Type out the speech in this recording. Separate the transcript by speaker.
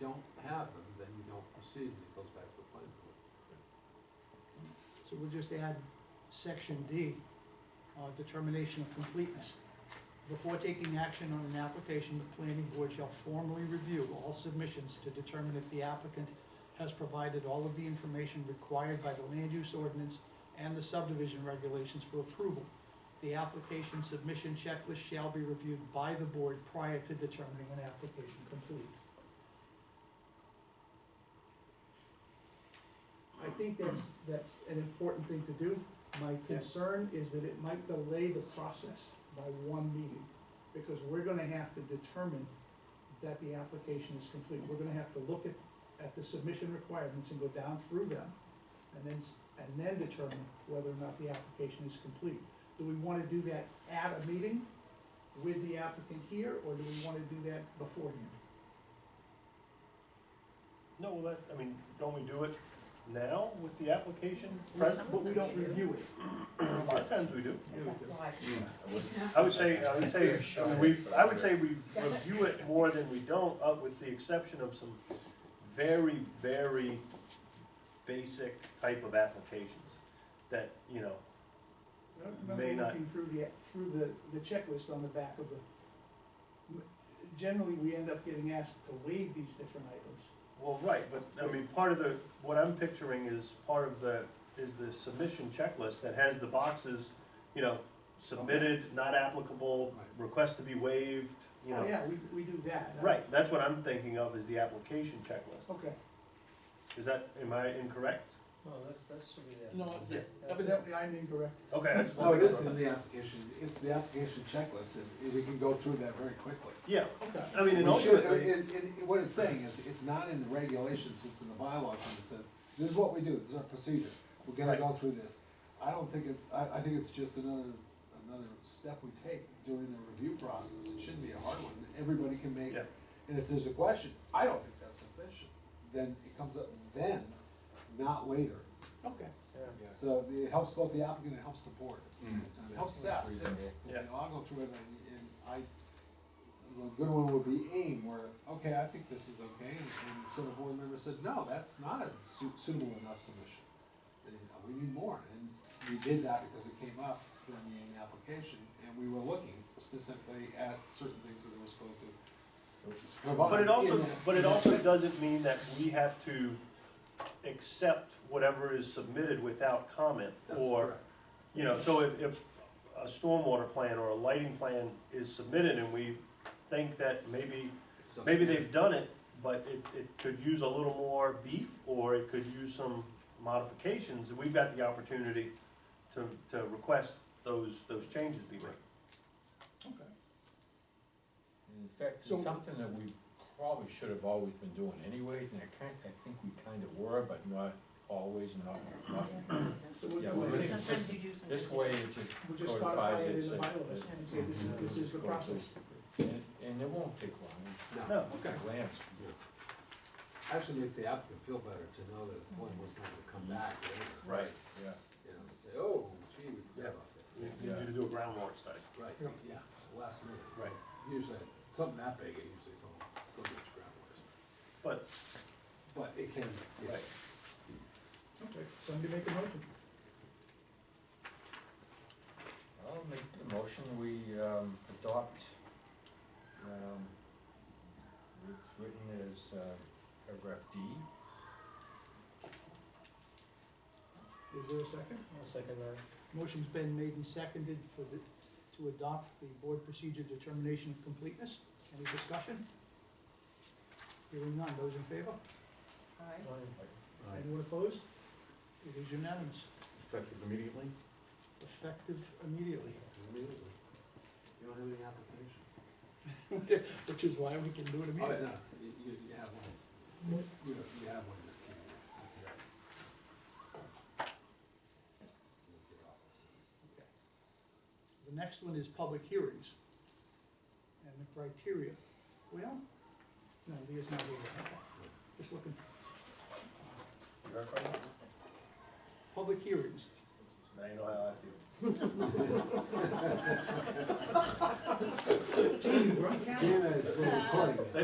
Speaker 1: don't have them, then you don't proceed, and it goes back to the planning board.
Speaker 2: So we'll just add section D, uh, determination of completeness. Before taking action on an application, the planning board shall formally review all submissions to determine if the applicant has provided all of the information required by the land use ordinance and the subdivision regulations for approval. The application submission checklist shall be reviewed by the board prior to determining an application complete. I think that's, that's an important thing to do. My concern is that it might delay the process by one meeting, because we're gonna have to determine that the application is complete. We're gonna have to look at, at the submission requirements and go down through them, and then, s- and then determine whether or not the application is complete. Do we wanna do that at a meeting with the applicant here, or do we wanna do that beforehand?
Speaker 3: No, well, that, I mean, don't we do it now with the application?
Speaker 4: Well,
Speaker 3: pres-
Speaker 4: some-
Speaker 2: But we don't review it.
Speaker 3: A lot of times we do.
Speaker 4: Why?
Speaker 3: I would say, I would say, I mean, we, I would say we
Speaker 4: Yeah.
Speaker 3: review it more than we don't, uh, with the exception of some very, very basic type of applications that, you know,
Speaker 2: I don't remember
Speaker 3: May not.
Speaker 2: looking through the, through the, the checklist on the back of the. Generally, we end up getting asked to waive these different items.
Speaker 3: Well, right, but, I mean, part of the, what I'm picturing is part of the, is the submission checklist that has the boxes, you know, submitted, not applicable,
Speaker 1: Right.
Speaker 3: request to be waived, you
Speaker 2: Oh,
Speaker 3: know.
Speaker 2: yeah, we, we do that. Uh,
Speaker 3: Right, that's what I'm thinking of is the application checklist.
Speaker 2: Okay,
Speaker 3: Is that, am I incorrect?
Speaker 5: No, that's, that's should be there.
Speaker 2: no, evidently I'm incorrect.
Speaker 3: Okay. I just
Speaker 6: No,
Speaker 3: wanted
Speaker 6: it
Speaker 3: to-
Speaker 6: is in the application, it's the application checklist, and we can go through that very quickly.
Speaker 3: Yeah,
Speaker 2: Okay.
Speaker 3: I mean, and
Speaker 6: We should- uh,
Speaker 3: ultimately,
Speaker 6: and- and what it's saying is, it's not in the regulations, it's in the bylaws, and it says, this is what we do, this is our procedure, we're gonna go through this. I don't think it, I, I think it's just another, another step we take during the review process, it shouldn't be a hard one, everybody can make.
Speaker 3: Yeah.
Speaker 6: And if there's a question, I don't think that's sufficient, then it comes up then, not later.
Speaker 2: Okay,
Speaker 6: So it helps both the applicant, it helps the board, it helps staff. too.
Speaker 3: Yeah.
Speaker 6: You know, I'll go through it and, and I, a good one would be aim, where, okay, I think this is okay, and, and so the board member said, no, that's not a su- suitable enough submission. And, uh, We need more, and we did that because it came up during the AIM application, and we were looking specifically at certain things that they were supposed to provide.
Speaker 3: but it also,
Speaker 6: in that-
Speaker 3: but it
Speaker 6: in that
Speaker 3: also doesn't mean that we have to accept whatever is submitted without comment
Speaker 6: That's
Speaker 3: or
Speaker 6: correct.
Speaker 3: You know, so if, if a stormwater plan or a lighting plan is submitted and we think that maybe,
Speaker 6: It's not
Speaker 3: maybe
Speaker 6: standard.
Speaker 3: they've done it, but it, it could use a little more beef, or it could use some modifications, we've got the opportunity to, to request those, those changes be made.
Speaker 2: okay.
Speaker 5: In fact,
Speaker 2: So-
Speaker 5: it's something that we probably should have always been doing anyways, and I kind, I think we kind of were, but not always, not, not.
Speaker 2: So we'll,
Speaker 5: Yeah,
Speaker 2: we'll
Speaker 5: we're
Speaker 2: take-
Speaker 5: gonna-
Speaker 4: Sometimes you do something.
Speaker 5: This way, it just
Speaker 2: we'll just codify
Speaker 5: codifies
Speaker 2: it
Speaker 5: it.
Speaker 2: in the
Speaker 5: so-
Speaker 2: bylaws and say this is, this is the process.
Speaker 5: And, and it won't take long,
Speaker 6: No,
Speaker 3: No,
Speaker 5: it's a glance.
Speaker 6: actually makes the applicant feel better to know that one was not gonna come back later.
Speaker 3: right,
Speaker 5: Yeah.
Speaker 6: you know, and say, oh, gee, we
Speaker 3: Yeah.
Speaker 6: forgot about
Speaker 3: we
Speaker 6: this.
Speaker 3: need you to do a groundwater study.
Speaker 6: Right,
Speaker 2: Yeah.
Speaker 6: yeah, last minute.
Speaker 3: Right.
Speaker 6: Usually, something that big, it usually don't go to its groundwater.
Speaker 3: But,
Speaker 6: But it can, yeah.
Speaker 3: right,
Speaker 2: Okay, somebody make a motion.
Speaker 5: I'll make the motion, we, um, adopt, um, it's written as, uh, paragraph D.
Speaker 2: Is there a second?
Speaker 5: I'll second that.
Speaker 2: Motion's been made and seconded for the, to adopt the board procedure determination of completeness. Any discussion? Hearing none, those in favor?
Speaker 4: Aye.
Speaker 2: Anyone opposed? It is unanimous,
Speaker 1: Effective immediately?
Speaker 2: effective immediately,
Speaker 6: Immediately. You don't have any application.
Speaker 2: which is why we can do it
Speaker 6: Oh,
Speaker 2: immediately.
Speaker 6: no, you, you, you have one, you, you have one, just keep it. That's it. Look at all this.
Speaker 2: The next one is public hearings and the criteria. Well, no, Leah's not here. Okay. Just looking.
Speaker 3: you are fine.
Speaker 2: Public hearings.
Speaker 3: now you know how I feel.
Speaker 6: Gina is recording.